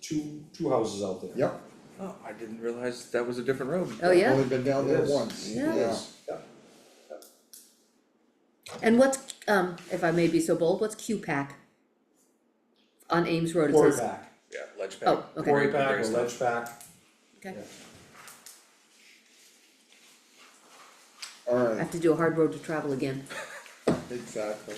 two, two houses out there. Yep, Oh, I didn't realize that was a different road. Oh, yeah, only been down there It is. once, It yeah. is. Yeah. and what's, um, if I may be so bold, what's Q-Pack? On Ames Road, it Quarry says, back, Yeah, ledge pack. Oh, okay. quarry back Very or slow. ledge back, okay, I Alright, have to do a hard road to travel again, exactly.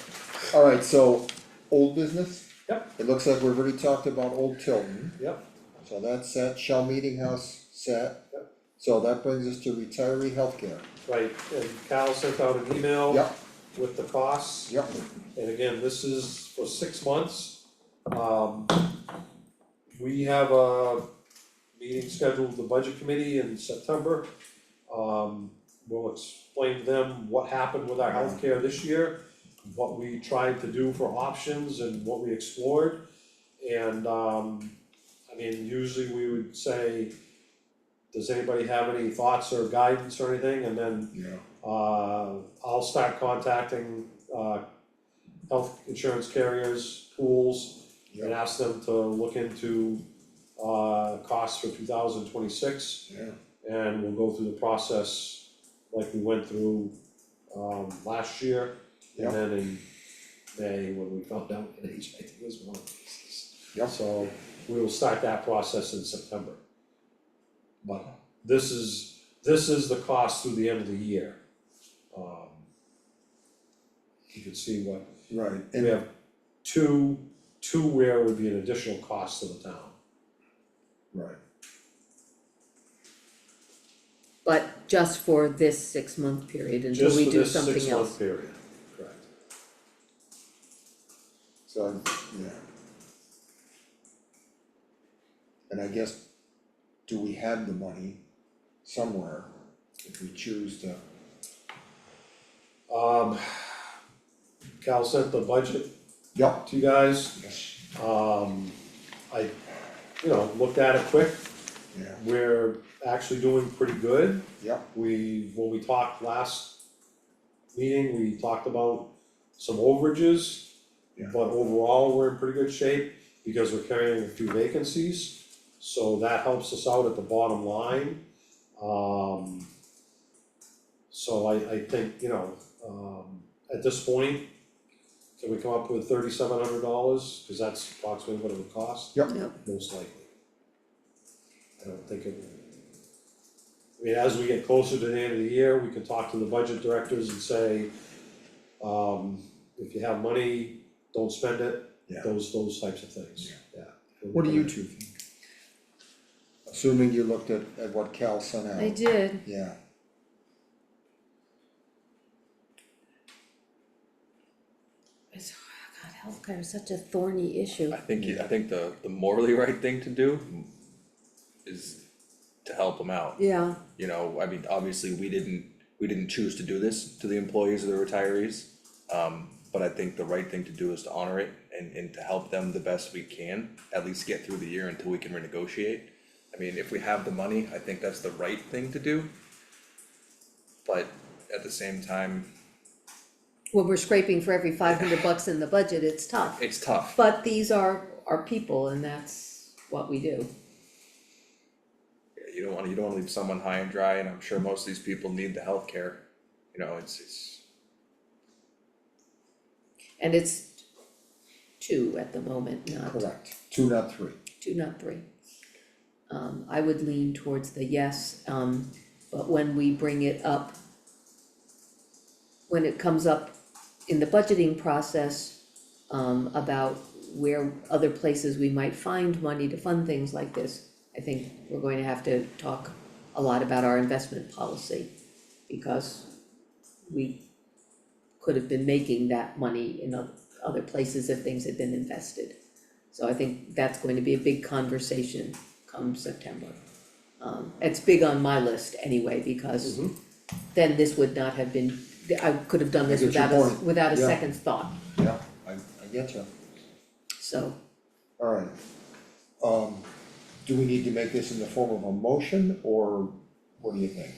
Alright, so, old business, yep, it looks like we've already talked about Old Tilton, yep, so that's set, Shell Meeting House set. Yep. So that brings us to retiree healthcare, right, and Cal sent out an email yep, with the costs. yep, And again, this is for six months. Um, we have a meeting scheduled with the budget committee in September. Um, we'll explain to them what happened with our healthcare this year, what we tried to do for options and what we explored. And, um, I mean, usually we would say, does anybody have any thoughts or guidance or anything? And then yeah, uh, I'll start contacting, uh, health insurance carriers, pools, and Yeah. ask them to look into, uh, costs for two thousand twenty-six, yeah, and we'll go through the process like we went through, um, last year, Yeah. and then in May, when we found out that HIV was one of the cases. Yeah. So, we will start that process in September. But this is, this is the cost through the end of the year. Um, You can see what, right, we and, have two, two where would be an additional cost to the town. right, but just for this six-month period until we do Just for something else. this six month period, correct. so, yeah. And I guess, do we have the money somewhere if we choose to, Um, Cal sent the budget yep, to you guys, yes, um, I, you know, looked at it quick, yeah, we're actually doing pretty good. yep. We, when we talked last meeting, we talked about some overages. Yeah. But overall, we're in pretty good shape because we're carrying a few vacancies, so that helps us out at the bottom line. Um, so I, I think, you know, um, at this point, can we come up with thirty-seven hundred dollars? Cause that's approximately what it would cost Yep. most likely. I don't think it. I mean, as we get closer to the end of the year, we can talk to the budget directors and say, um, if you have money, don't spend it. Yeah. Those, those types of things, yeah. What do you two think? Assuming you looked at, at what Cal sent out. I did, Yeah, it's, oh god, healthcare is such a thorny issue, I think, you- I think the, the morally right thing to do is to help them out. yeah, You know, I mean, obviously, we didn't, we didn't choose to do this to the employees or the retirees. Um, but I think the right thing to do is to honor it and, and to help them the best we can, at least get through the year until we can renegotiate. I mean, if we have the money, I think that's the right thing to do. But at the same time, when we're scraping for every five hundred bucks in the budget, it's tough. it's tough. But these are our people and that's what we do. You don't wanna, you don't wanna leave someone high and dry, and I'm sure most of these people need the healthcare. You know, it's, it's, And it's two at the moment, not correct, two, not three, two, not three. Um, I would lean towards the yes, um, but when we bring it up, when it comes up in the budgeting process, um, about where other places we might find money to fund things like this, I think we're going to have to talk a lot about our investment policy, because we could have been making that money in oth- other places if things had been invested. So I think that's going to be a big conversation come September. Um, it's big on my list anyway, because Mm-hmm. Mhm. then this would not have been, I could have done this I get your without a, point. without a Yeah. second thought, yeah, I, I get you, so. alright. Um, do we need to make this in the form of a motion, or what do you think?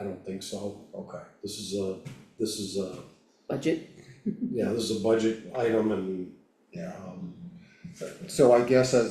I don't think so. Okay, This is a, this is a, Budget, yeah, this is a budget item and, yeah, um, so I guess as